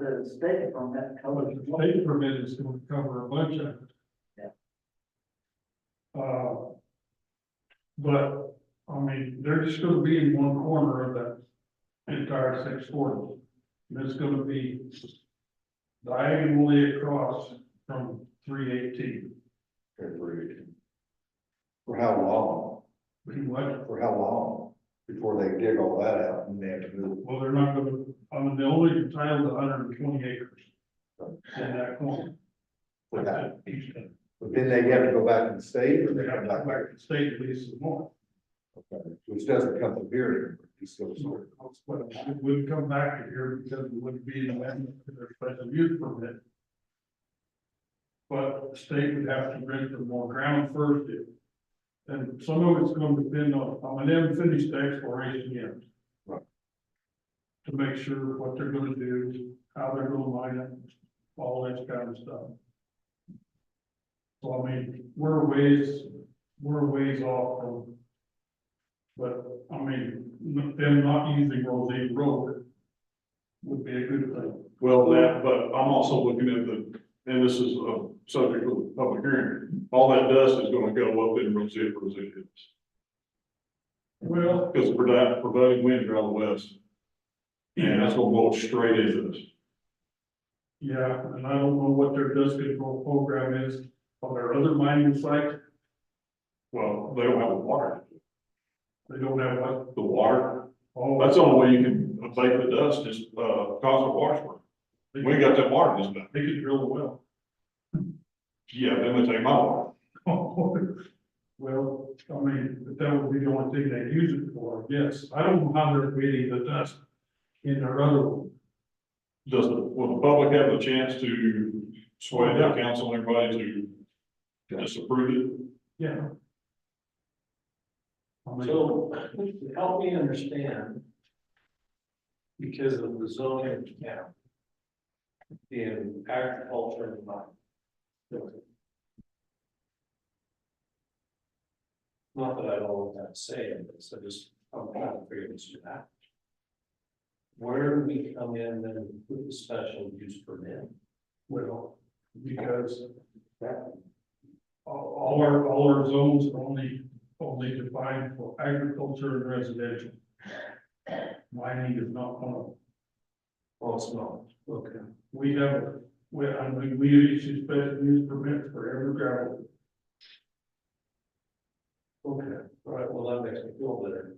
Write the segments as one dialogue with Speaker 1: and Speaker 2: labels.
Speaker 1: The state from that
Speaker 2: But
Speaker 1: covers.
Speaker 2: the state permit is gonna cover a bunch of it.
Speaker 1: Yeah.
Speaker 2: Uh. But, I mean, they're just gonna be in one corner of that entire six forty. And it's gonna be diagonally across from three eighteen.
Speaker 3: Agreed. For how long,
Speaker 2: Well,
Speaker 3: for how long before they dig all that out and they have to move?
Speaker 2: they're not gonna, I mean, they only entitled hundred and twenty acres. In that corner.
Speaker 3: with that?
Speaker 2: Each,
Speaker 3: But then they have to go back to the state or
Speaker 2: they
Speaker 3: they
Speaker 2: have
Speaker 3: come
Speaker 2: to
Speaker 3: back,
Speaker 2: go back to state at least some more.
Speaker 3: Okay, which doesn't come from here. it's still
Speaker 2: So,
Speaker 3: sort of-
Speaker 2: but it would come back to here because it would be an amendment to their special use permit. But the state would have to rent them more ground first. if- And some of it's gonna depend on, on an unfinished exploration yet.
Speaker 3: Right.
Speaker 2: To make sure what they're gonna do, how they're gonna mine it, all that kind of stuff. So I mean, we're a ways, we're a ways off from but, I mean, n- them not using Rosine Road would be a good thing.
Speaker 4: Well, that, but I'm also looking at the, and this is a subject of the public hearing, all that dust is gonna go up in Rosita, Rosita.
Speaker 2: Well,
Speaker 4: Because providing, providing winds are out of the west, and
Speaker 2: yeah,
Speaker 4: that's gonna blow straight into this.
Speaker 2: yeah, and I don't know what their dust control program is on their other mining sites.
Speaker 4: Well, they don't have the water,
Speaker 2: They don't have one.
Speaker 4: the water,
Speaker 2: Oh,
Speaker 4: that's the only way you can abate the dust is, uh, cause a wash work.
Speaker 2: They
Speaker 4: We got that water this time.
Speaker 2: they could drill a well.
Speaker 4: Yeah, then they take my water.
Speaker 2: Well, I mean, but that would be the only thing they use it for, yes. I don't know how they're creating the dust in their other one.
Speaker 4: Does, the- will the public have a chance to sway the council, and everybody to disapprove it?
Speaker 2: Yeah. I mean-
Speaker 5: So, help me understand. Because of the zoning of the town. In agriculture and mining. Not that I don't want that to say, it, but so just, I'm trying to figure this out. Where do we come in and with the special use permit?
Speaker 2: Well, because that. All, all our, all our zones are only, only defined for agriculture and residential. Mining is not one of them.
Speaker 5: Well, Oh, it's not, okay.
Speaker 2: We have, we, I mean, we issue special use permits for every gravel.
Speaker 5: Okay, all right, well, that makes me feel better.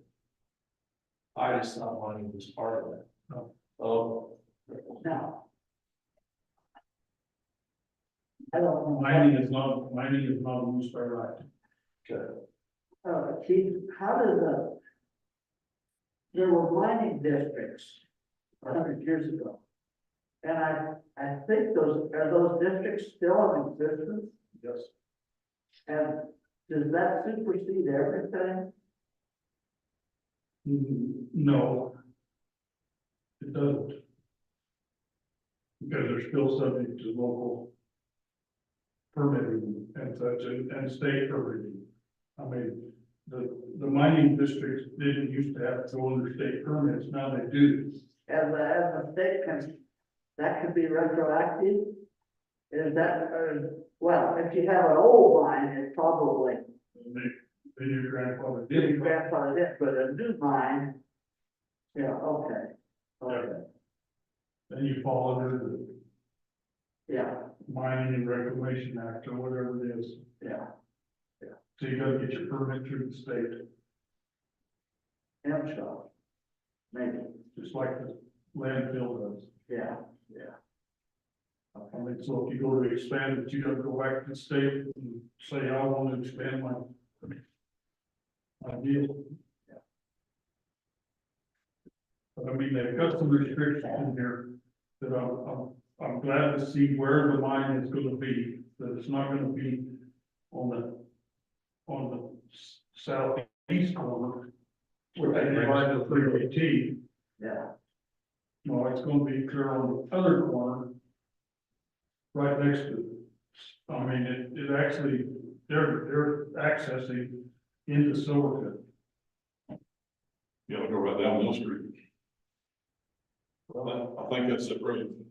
Speaker 5: I just not wanting this part of it.
Speaker 2: No.
Speaker 5: Oh,
Speaker 1: Now. I don't know,
Speaker 2: Mining is not, mining is not a use by right.
Speaker 1: uh, chief, how does the. There were mining districts a hundred years ago. And I, I think those, are those districts still in existence?
Speaker 2: Yes.
Speaker 1: And does that supersede everything?
Speaker 2: Mm, No. It doesn't. Because they're still subject to local permitting and such, and, and state permitting. I mean, the, the mining districts didn't used to have to go under state permits, now they do.
Speaker 1: As a, as a state can, that could be retroactive? Is that, uh, well, if you have an old mine, it probably
Speaker 2: And they, then your grandfather
Speaker 1: your
Speaker 2: did.
Speaker 1: grandfather did, but a new mine. Yeah, okay, okay,
Speaker 2: Then you fall under the
Speaker 1: yeah,
Speaker 2: Mining and Reclamation Act or whatever it is.
Speaker 1: yeah.
Speaker 2: So you gotta get your permit through the state.
Speaker 1: M shop. Maybe,
Speaker 2: just like the landfill does.
Speaker 1: yeah, yeah.
Speaker 2: I mean, so if you go to expand it, you gotta go back to the state and say, I want to expand my. My deal. But I mean, they've got some restrictions in here that I'm, I'm, I'm glad to see where the mine is gonna be, that it's not gonna be on the, on the s- southeast corner. Where they divide the three eighteen.
Speaker 1: Yeah,
Speaker 2: No, it's gonna be clear on the other corner. Right next to, it. I mean, it, it actually, they're, they're accessing into Silverton.
Speaker 4: Yeah, I'll go right down Mill Street. Well, I I think that's it, right?